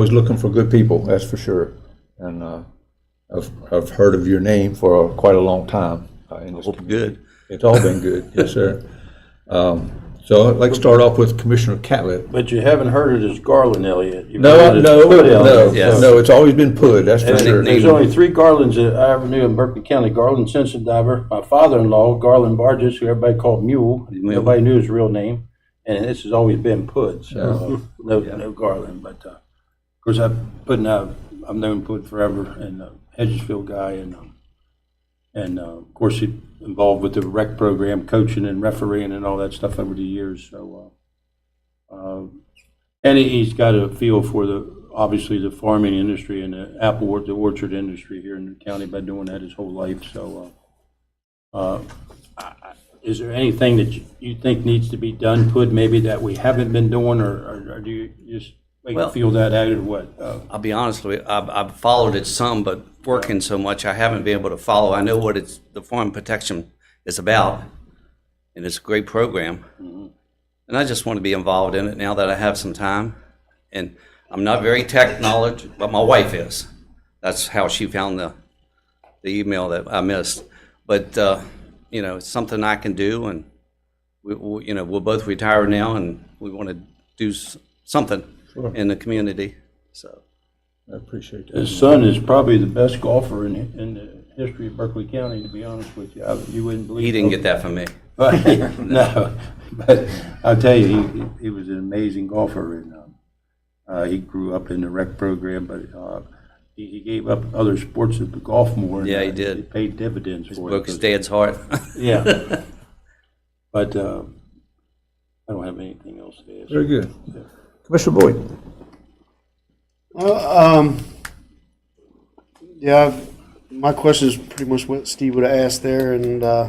Always looking for good people, that's for sure. And uh, I've, I've heard of your name for quite a long time. uh, in this community. Good. It's all been good, yes, sir. Um, So I'd like to start off with Commissioner Catlett. But you haven't heard it as Garland Elliott. You've No, heard I- it as no, Puddell. no, Yes. no, it's always been Pud, that's for And sure. There's only three Garlands that I ever knew in Berkeley County, Garland Sensendiver, my father-in-law, Garland Barges, who everybody called Mule, nobody knew his real name, and this has always been Pud, so, uh, no, no Garland, but, uh, of course, I've, Pud and I, I've known Pud forever, and uh, Hedgesville guy, and, um, and, uh, of course, he involved with the rec program, coaching and refereeing and all that stuff over the years, so, uh, and he- he's got a feel for the, obviously, the farming industry and the apple, or- the orchard industry here in the county by doing that his whole life, so. uh, uh, I- I- Is there anything that you- you think needs to be done, put maybe that we haven't been doing, or- or or do you just like, Well- feel that out, or what? Uh, I'll be honest with you, I've, I've followed it some, but working so much, I haven't been able to follow. I know what it's, the Farm Protection is about, and it's a great program. And I just want to be involved in it now that I have some time. And I'm not very tech knowledge, but my wife is. That's how she found the, the email that I missed. But, uh, you know, it's something I can do, and we, we- you know, we're both retired now, and we want to do s- something in the community, so. I appreciate that. His son is probably the best golfer in, in the history of Berkeley County, to be honest with you. I- You wouldn't believe. He didn't get that from me. But, no, but I'll tell you, he, he was an amazing golfer and, um, uh, he grew up in the rec program, but, uh, he, he gave up other sports to golf more. and, Yeah, he uh, did. It paid dividends for Broke his it. dad's heart. Yeah. But, uh, I don't have anything else to add. Very good. Commissioner Boyd? Uh, Um, yeah, I've- my question is pretty much what Steve would have asked there, and uh,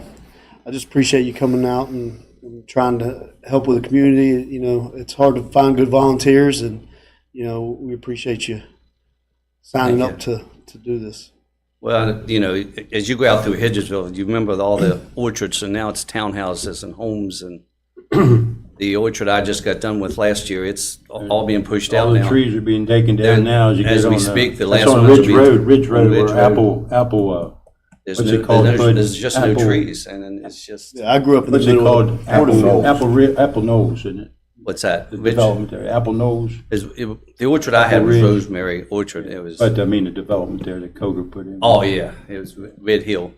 I just appreciate you coming out and, and trying to help with the community. You know, it's hard to find good volunteers, and you know we appreciate you signing Thank up to to do this. Well, you know, as you go out through Hedgesville, you remember all the orchards, and now it's townhouses and homes and the orchard I just got done with last year, it's all being pushed All out the now. trees are being taken down And now as you get on. as we uh, speak, the that's last on ones Ridge will be- Road, Ridge on Road, Ridge where Road. Apple, Apple, uh, There's what's no- it called? there's no- Bud- There's just no apple- trees, and then it's just, Yeah, I grew up in what's the it middle called? of Apple, Porterfield. Apple, Ri- Apple Knolls, isn't it? what's that? The Rich- development there, Apple Knolls. is- it- The orchard I had was Ridge. Rosemary Orchard. It was, But I mean, the development there that Coger put in. oh, yeah, it was Red Hill.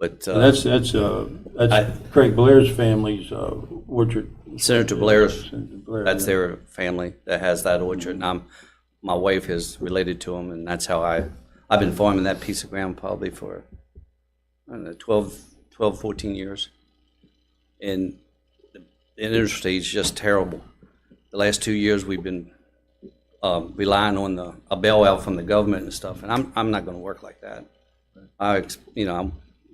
But uh, That's, that's, uh, that's Craig Blair's family's uh, orchard. Senator Blair's Senator Blair, That's yeah. their family that has that orchard, and I'm, my wife is related to them, and that's how I, I've been farming that piece of ground probably for, I don't know, 12, 12, 14 years. And the the industry is just terrible. The last two years, we've been um, relying on the, a bailout from the government and stuff, and I'm, I'm not gonna work like that. I, ex- you know, I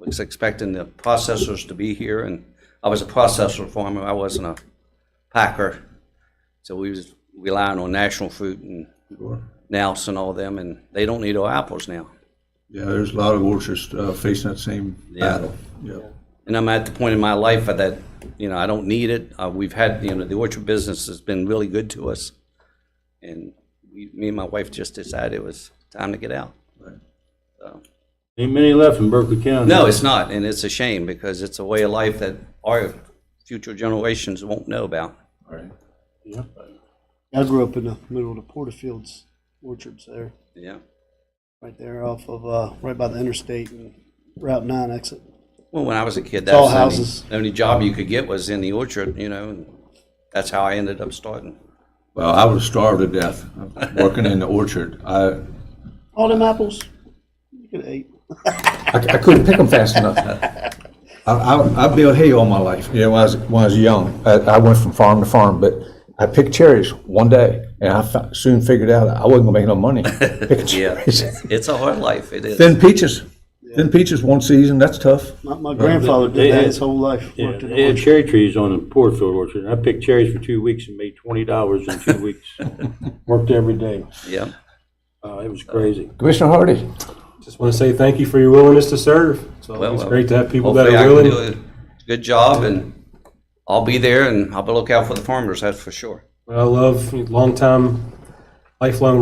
was expecting the processors to be here, and I was a processor farmer, I wasn't a packer. So we was relying on National Fruit and Nous and all them, and they don't need our apples now. Yeah, there's a lot of orchards uh, facing that same battle. Yeah. And I'm at the point in my life that, you know, I don't need it. Uh, we've had, you know, the orchard business has been really good to us. And we, me and my wife just decided it was time to get out. So, Ain't many left in Berkeley County. no, it's not, and it's a shame because it's a way of life that our future generations won't know about. All right. Yeah. I grew up in the middle of the Porterfields orchards there, Yeah. right there off of uh, right by the interstate and Route Nine exit. Well, when I was a kid, that all was the only- houses. the only job you could get was in the orchard, you know, and that's how I ended up starting. Well, I was starved to death working in the orchard. I, All them apples, you could have ate. I, I couldn't pick them fast enough. I, I, I built hay all my life. You know, when I was, when I was young, I, I went from farm to farm, but I picked cherries one day and I fi- soon figured out I wasn't gonna make no money picking Yeah, cherries. it's, it's a hard life, it is. Then peaches, then peaches one season, that's tough. My, my grandfather They did that had- his whole life. Yeah, worked in They had orchards. cherry trees on the Porterfield orchard. I picked cherries for two weeks and made twenty dollars in two weeks. Worked every day. Yeah, Uh, It was crazy. Commissioner Hardy? Just want to say thank you for your willingness to serve. It's Well, always well, great to have people that hopefully I are can willing. do a Good job, and I'll be there, and I'll be looking out for the farmers, that's for sure. What I love, longtime, lifelong